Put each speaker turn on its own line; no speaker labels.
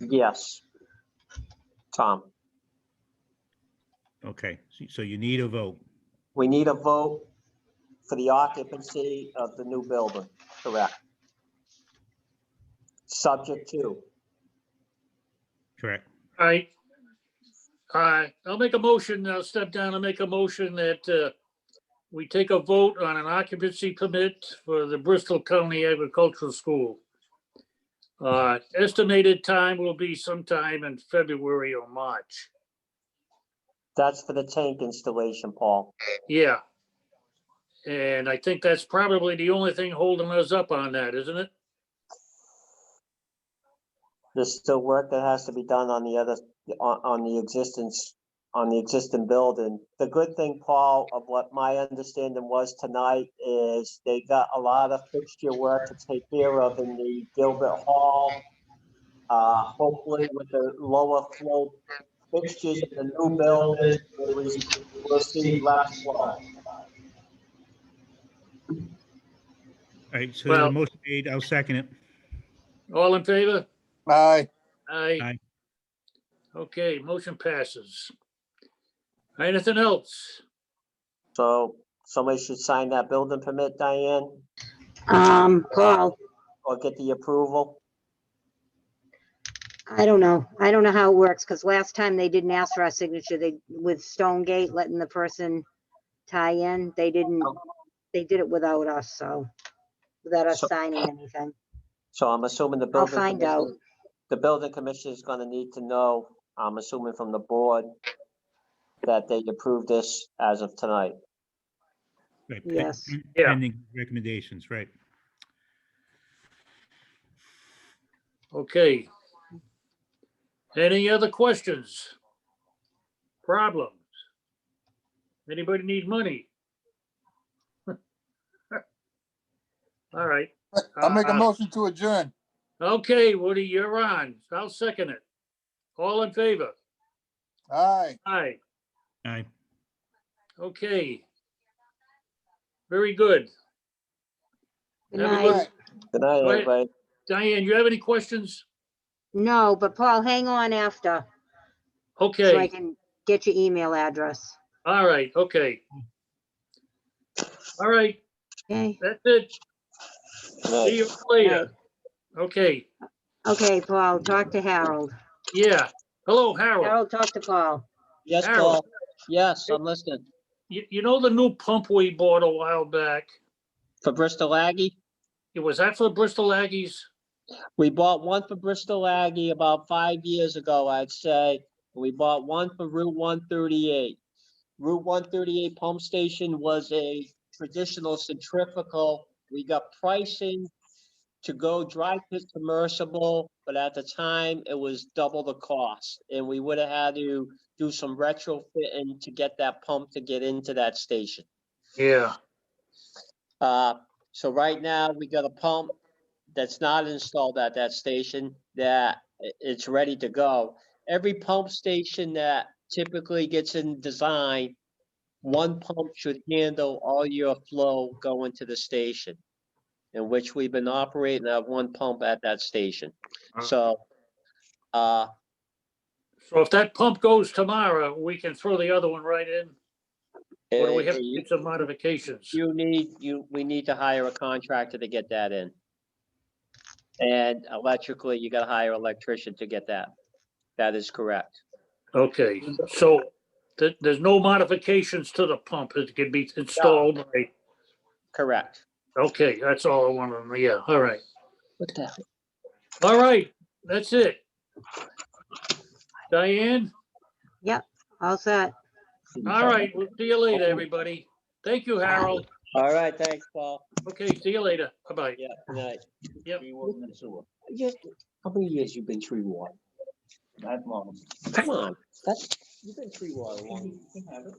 Yes. Tom,
Okay, so- so you need a vote.
we need a vote for the occupancy of the new building, correct? Subject to,
Correct.
All right. All right, I'll make a motion, I'll step down and make a motion that uh, we take a vote on an occupancy permit for the Bristol County Agricultural School. Uh, Estimated time will be sometime in February or March.
that's for the tank installation, Paul.
Yeah. And I think that's probably the only thing holding us up on that, isn't it?
There's still work that has to be done on the other, on, on the existence, on the existing building. The good thing, Paul, of what my understanding was tonight is they got a lot of fixture work to take care of in the Gilbert Hall. Uh, hopefully with the lower flow fixtures in the new building, we'll, we'll see less flow.
All right, so the
Well-
motion made, I'll second it.
All in favor?
Aye.
Aye.
Aye.
Okay, motion passes. Anything else?
So somebody should sign that building permit, Diane,
Um, Paul,
or get the approval.
I don't know. I don't know how it works, because last time they didn't ask for our signature, they, with Stone Gate letting the person tie in, they didn't, they did it without us, so, without us
So-
signing anything.
So I'm assuming the
I'll
building.
find
commission-
out.
the building commission is gonna need to know, I'm assuming from the board, that they approved this as of tonight.
Right, pe-
Yes.
Yeah.
Pending recommendations, right.
Okay. Any other questions? Problems? Anybody need money? All right,
I'll make a
Uh,
motion to adjourn.
okay, Woody, you're on. I'll second it. All in favor?
Aye.
Aye.
Aye.
Okay. Very good.
Good
Have a
night.
good-
Aye.
Good night,
Right.
everybody.
Diane, you have any questions?
No, but Paul, hang on after, so I
Okay,
can get your email address.
all right, okay. All right,
Okay,
that's it.
Good night.
See you later. Okay,
okay, Paul, talk to Harold.
yeah. Hello, Harold.
Harold, talk to Paul.
Yes,
Harold.
Paul. Yes, I'm listening.
You, you know the new pump we bought a while back?
For Bristol Aggie,
It was that for Bristol Aggies?
we bought one for Bristol Aggie about five years ago, I'd say. We bought one for Route one thirty-eight. Route one thirty-eight pump station was a traditional centrifugal. We got pricing to go dry fit submersible, but at the time, it was double the cost. And we would have had to do some retrofitting to get that pump to get into that station.
Yeah,
Uh, so right now, we got a pump that's not installed at that station that i- it's ready to go. Every pump station that typically gets in design, one pump should handle all your flow going to the station. In which we've been operating at one pump at that station.
Ah.
So, uh,
so if that pump goes tomorrow, we can throw the other one right in? Or do we
eh,
have to
you
make some modifications?
You need, you, we need to hire a contractor to get that in. And electrically, you gotta hire an electrician to get that. That is correct.
Okay, so th- there's no modifications to the pump. It can be installed by
Correct.
Okay, that's all I wanted, to know. yeah, all right,
What the?
all right, that's it. Diane,
All set.
all right, we'll see you later, everybody. Thank you, Harold.
All right, thanks, Paul.
Okay, see you later, bye-bye.
Yeah, good night.
Yep.
Be warm and sewer.
Just- How many years you been tree warden? That long.
Come on, that's, you've been tree water long.